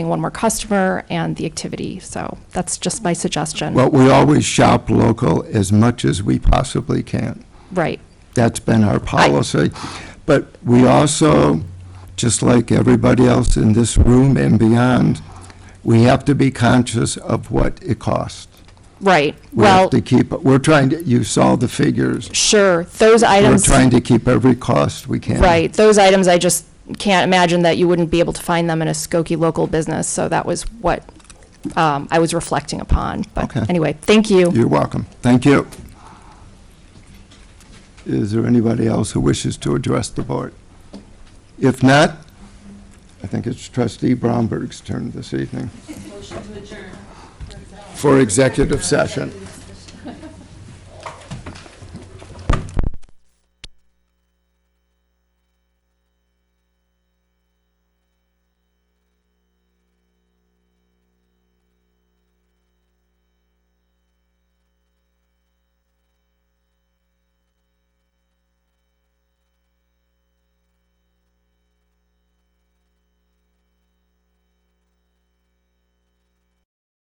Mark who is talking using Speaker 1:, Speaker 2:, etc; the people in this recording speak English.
Speaker 1: one more customer and the activity. So that's just my suggestion.
Speaker 2: Well, we always shop local as much as we possibly can.
Speaker 1: Right,
Speaker 2: That's been our policy. But we also, just like everybody else in this room and beyond, we have to be conscious of what it costs.
Speaker 1: right.
Speaker 2: We have
Speaker 1: Well,
Speaker 2: to keep, we're trying to, you saw the figures.
Speaker 1: sure, those
Speaker 2: We're
Speaker 1: items,
Speaker 2: trying to keep every cost we can.
Speaker 1: right, those items, I just can't imagine that you wouldn't be able to find them in a Skokie local business. So that was what um, I was reflecting upon.
Speaker 2: Okay.
Speaker 1: But anyway, thank you.
Speaker 2: You're welcome. Thank you. Is there anybody else who wishes to address the board? If not, I think it's trustee Bromberg's turn this evening. For executive session.